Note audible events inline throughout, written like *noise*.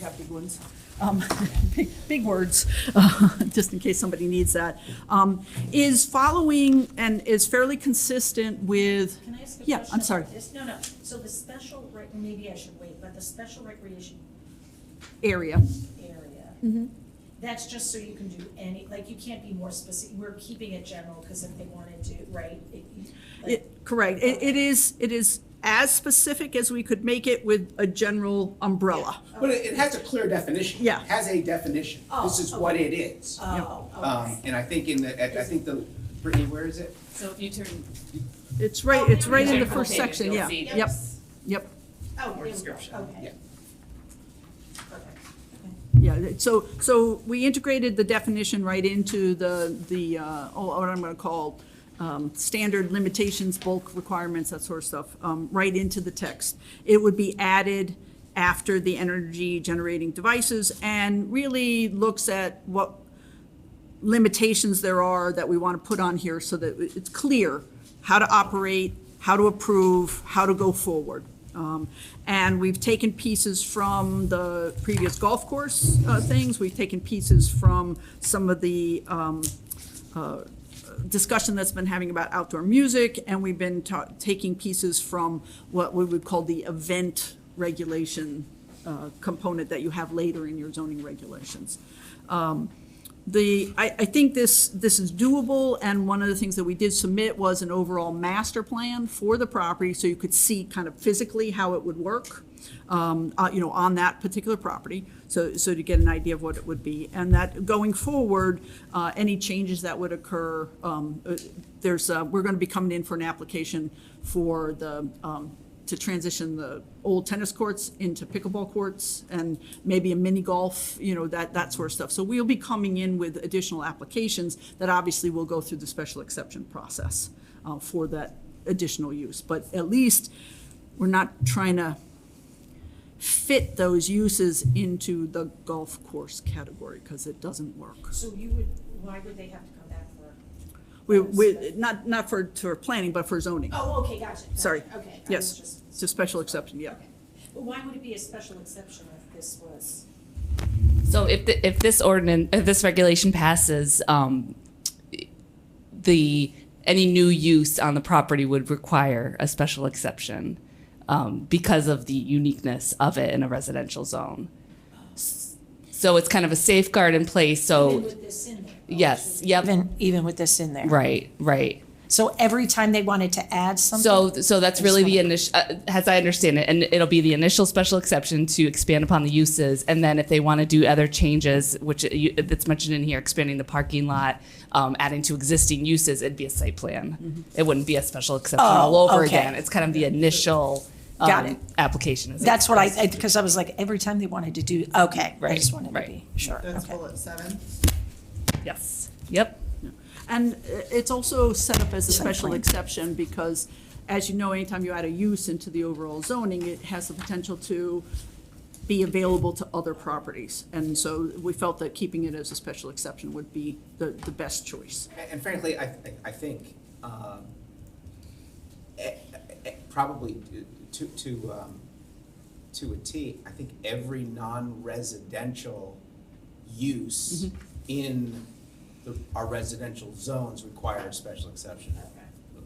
have big ones, um, *laughs* big, big words, *laughs* uh, just in case somebody needs that, um, is following and is fairly consistent with, Can I ask a question? Yeah, I'm sorry. about this? No, no, so the special, rec- maybe I should wait, but the special recreation area. Mm-hmm. area, that's just so you can do any, like, you can't be more specific, we're keeping it general, because if they wanted to, right? it- you- like- It- Correct. It, it is, it is as specific as we could make it with a general umbrella. But it, it has a clear definition. Yeah. It has a definition. This is Oh, what it is. Oh, Um, Uh, okay. and I think in the, I I think the, Brittany, where is it? So if you turn. It's right, it's right in the turn first pages, section, you'll yeah. see Yep, there's- yep, Oh, there we go, description. okay. Yeah. Perfect. yeah. So, so we integrated the definition right into the, the, uh, oh, what I'm gonna call, um, standard limitations, bulk requirements, that sort of stuff, um, right into the text. It would be added after the energy generating devices and really looks at what limitations there are that we want to put on here so that it's clear how to operate, how to approve, how to go forward. Um, And we've taken pieces from the previous golf course uh, things, we've taken pieces from some of the um, uh, discussion that's been having about outdoor music, and we've been ta- taking pieces from what we would call the event regulation uh, component that you have later in your zoning regulations Um, the, I, I think this, this is doable, and one of the things that we did submit was an overall master plan for the property, so you could see kind of physically how it would work, um, uh, you know, on that particular property, so, so to get an idea of what it would be. And that, going forward, uh, any changes that would occur, um, uh, there's, uh, we're gonna be coming in for an application for the, um, to transition the old tennis courts into pickleball courts and maybe a mini golf, you know, that, that sort of stuff. So we'll be coming in with additional applications that obviously will go through the special exception process uh, for that additional use. But at least we're not trying to fit those uses into the golf course category because it doesn't work. So you would, why would they have to come back for? We, we, not, not for, for planning, but for zoning. Oh, okay, gotcha. gotcha, Sorry. Okay. I was Yes, just- it's a special exception, yeah. okay. But why would it be a special exception if this was? So if, the- if this ordinance, if this regulation passes, um, the, any new use on the property would require a special exception um, because of the uniqueness of it in a residential zone. So it's kind of a safeguard in place, Even so, with this in there? yes, yep, Even, even with this in there. right, right. So every time they wanted to add something, So, so that's really the initial, uh, as I understand it, and it'll be the initial special exception to expand upon the uses, and then if they want to do other changes, which uh, you, that's mentioned in here, expanding the parking lot, um, adding to existing uses, it'd be a site plan. It wouldn't be a special exception all Mm-hmm. Oh, over okay. again. It's kind of the initial um, Got it. application. is it? that's what I, because I was like, every time they wanted to do, okay, I Right, just wanted to right. be sure, That's okay. bullet seven. Yes. Yep. And uh, it's also set up as a Site special plan. exception because, as you know, anytime you add a use into the overall zoning, it has the potential to be available to other properties. And so we felt that keeping it as a special exception would be the, the best choice. A- And frankly, I, th- I think, um, e- e- probably to, to, um, to a T, I think every non-residential use Mm-hmm. in the, our residential zones require a special exception.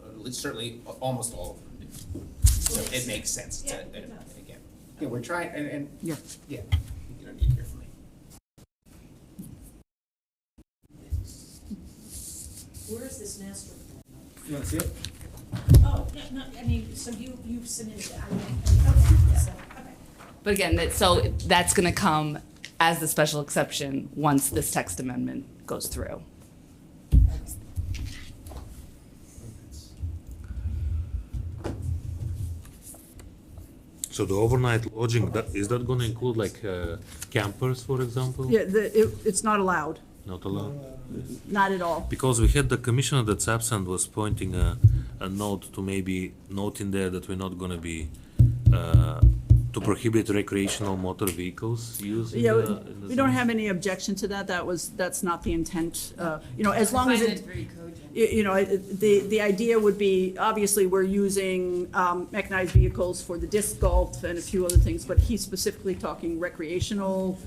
At least certainly, a- almost all of them do. So it makes sense to, Yeah, and it does. again, yeah, we're trying, and, and, Yeah. yeah, you don't need to hear from me. Where is this master plan? You wanna see it? Oh, no, no, I mean, so you, you've submitted it, I mean, okay, so, okay. But again, that, so that's going to come as the special exception once this text amendment goes through. So the overnight lodging, that, is that gonna include like uh, campers, for example? Yeah, the, it, it's not allowed, Not allowed? not at all. Because we had the commissioner that's absent was pointing a, a note to maybe note in there that we're not gonna be uh, to prohibit recreational motor vehicles used in Yeah, the. we- in the we don't zone? have any objection to that, that was, that's not the intent, uh, you know, as long as it, very cogent. you you know, it- the, the idea would be, obviously, we're using um, mechanized vehicles for the disc golf and a few other things, but he's specifically talking recreational